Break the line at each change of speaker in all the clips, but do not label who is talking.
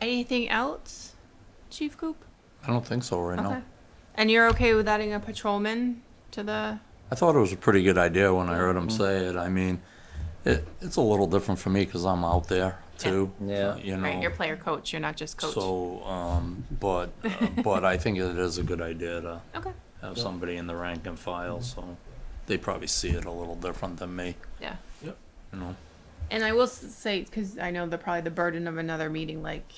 Anything else, Chief Coop?
I don't think so right
Okay.
now.
And you're okay with adding a patrolman to the?
I thought it was a pretty good idea when I heard him say it. I mean, it, it's a little different for me because I'm out there too. uh,
Yeah. Yeah.
You know.
Right, you're player coach. You're not just coach.
So, um, but, uh, but I think it is a good idea to
okay.
have somebody in the rank and file, so they probably see it a little different than me,
Yeah.
you know?
And I will s- say, because I know the probably the burden of another meeting, like,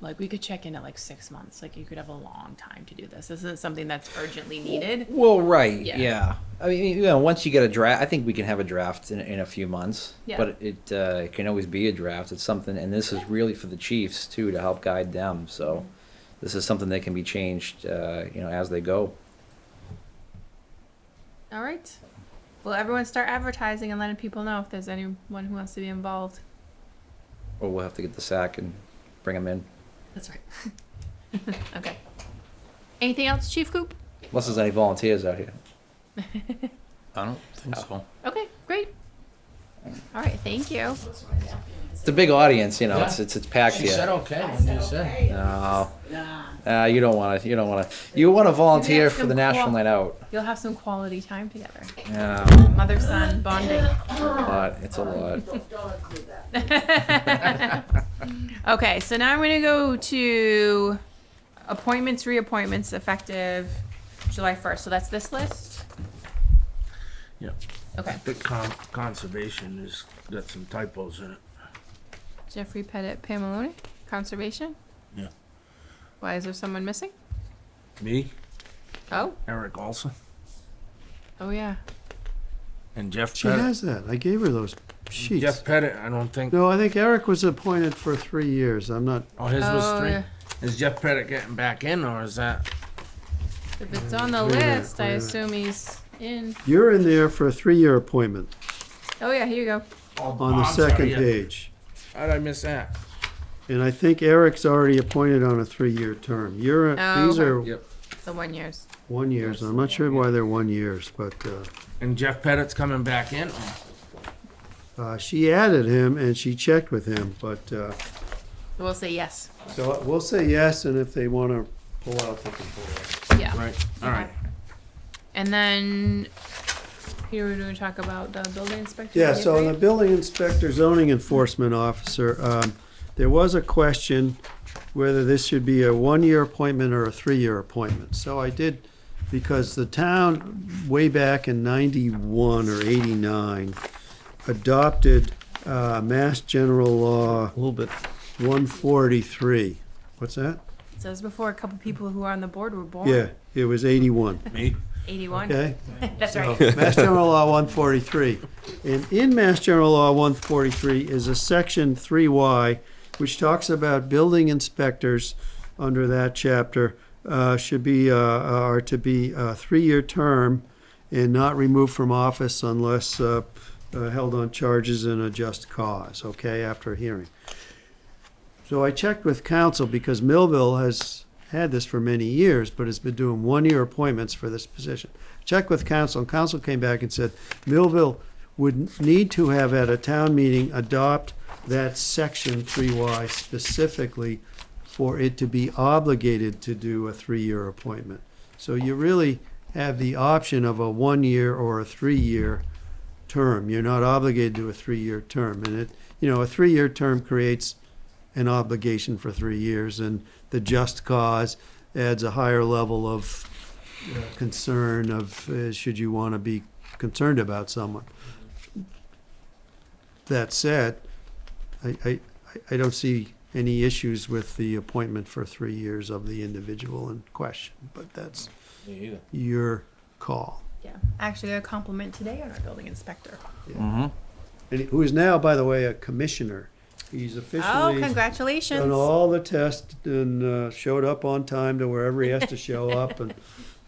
like we could check in at like six months. Like you could have a long time to do this. This isn't something that's urgently needed.
Well, right,
Yeah.
yeah. I mean, you know, once you get a draft, I think we can have a draft in, in a few months.
Yeah.
But it uh, it can always be a draft. It's something, and this is really for the Chiefs too to help guide them. So, this is something that can be changed, uh, you know, as they go.
All right. Well, everyone start advertising and letting people know if there's anyone who wants to be involved.
Or we'll have to get the sack and bring them in,
That's right. okay. Anything else, Chief Coop?
unless there's any volunteers out here.
I don't think so.
Okay, great. All right, thank you.
It's a big audience, you know. It's it's it's packed
She said
here.
okay when you said.
No, uh, you don't want to. You don't want to. You want to volunteer
ask
for
them
the national
co-op.
night out.
You'll have some quality time together.
Yeah,
Mother son bonding.
but it's a lot.
okay, so now I'm going to go to appointments, reappointments effective July 1st. So that's this list?
Yeah.
Okay.
The con- conservation has got some typos in it.
Jeffrey Pettit, Pam Maloney, Conservation?
Yeah.
Why is there someone missing?
Me,
Oh,
Eric Olson,
oh yeah.
and Jeff
She
Pettit.
has that. I gave her those sheets.
Jeff Pettit, I don't think.
No, I think Eric was appointed for three years. I'm not.
Oh, his
Oh,
was three.
yeah.
Is Jeff Pettit getting back in, or is that?
If it's on the
Wait a minute,
list, I
wait a minute.
assume he's in.
You're in there for a three-year appointment
Oh yeah, here you go.
Oh,
on the second page,
How'd I miss that?
and I think Eric's already appointed on a three-year term. You're
Oh,
these
okay.
are
Yep.
The one years.
one years. I'm not sure why they're one years, but uh,
And Jeff Pettit's coming back in. Oh,
uh, she added him and she checked with him. But uh,
We'll say yes.
so we'll say yes, and if they want to pull out, they can pull out.
Yeah.
Right. All right.
And then here we're going to talk about the building inspector.
Yeah, so on the
right?
building inspector, zoning enforcement officer, um, there was a question whether this should be a one-year appointment or a three-year appointment. So I did, because the town way back in ninety-one or eighty-nine adopted, uh, Mass General Law. A little bit. One forty-three. What's that?
It says before a couple people who are on the board were born.
Yeah, it was eighty-one,
Me.
81.
okay?
That's right.
Mass General Law 143. And in Mass General Law 143 is a section 3Y, which talks about building inspectors under that chapter uh, should be, uh, are to be a three-year term and not removed from office unless uh, uh, held on charges in a just cause, okay, after a hearing. So I checked with council because Millville has had this for many years, but has been doing one-year appointments for this position. Checked with council, and council came back and said Millville would need to have at a town meeting adopt that section three Y specifically for it to be obligated to do a three-year appointment. So you really have the option of a one-year or a three-year term. You're not obligated to a three-year term, and it, you know, a three-year term creates an obligation for three years, and the just cause adds a higher level of uh, concern of, uh, should you want to be concerned about someone. That said, I, I, I don't see any issues with the appointment for three years of the individual in question, but that's
Me either.
your call.
Yeah. Actually, got a compliment today on our building inspector.
And he- who is now, by the way, a commissioner. He's
Oh,
officially
congratulations.
done all the tests and uh, showed up on time to wherever he has to show up, and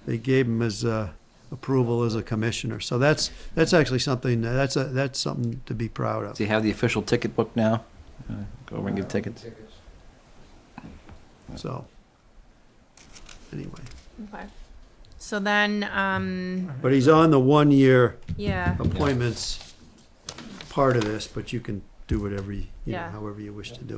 they gave him his uh, approval as a commissioner. So that's that's actually something that's a, that's something to be proud of.
Does he have the official ticket book now? Uh, go over and give tickets.
So anyway,
Okay. So then, um,
but he's on the one year
yeah.
appointments part of this, but you can do whatever you, you know,
Yeah.
however you wish to do.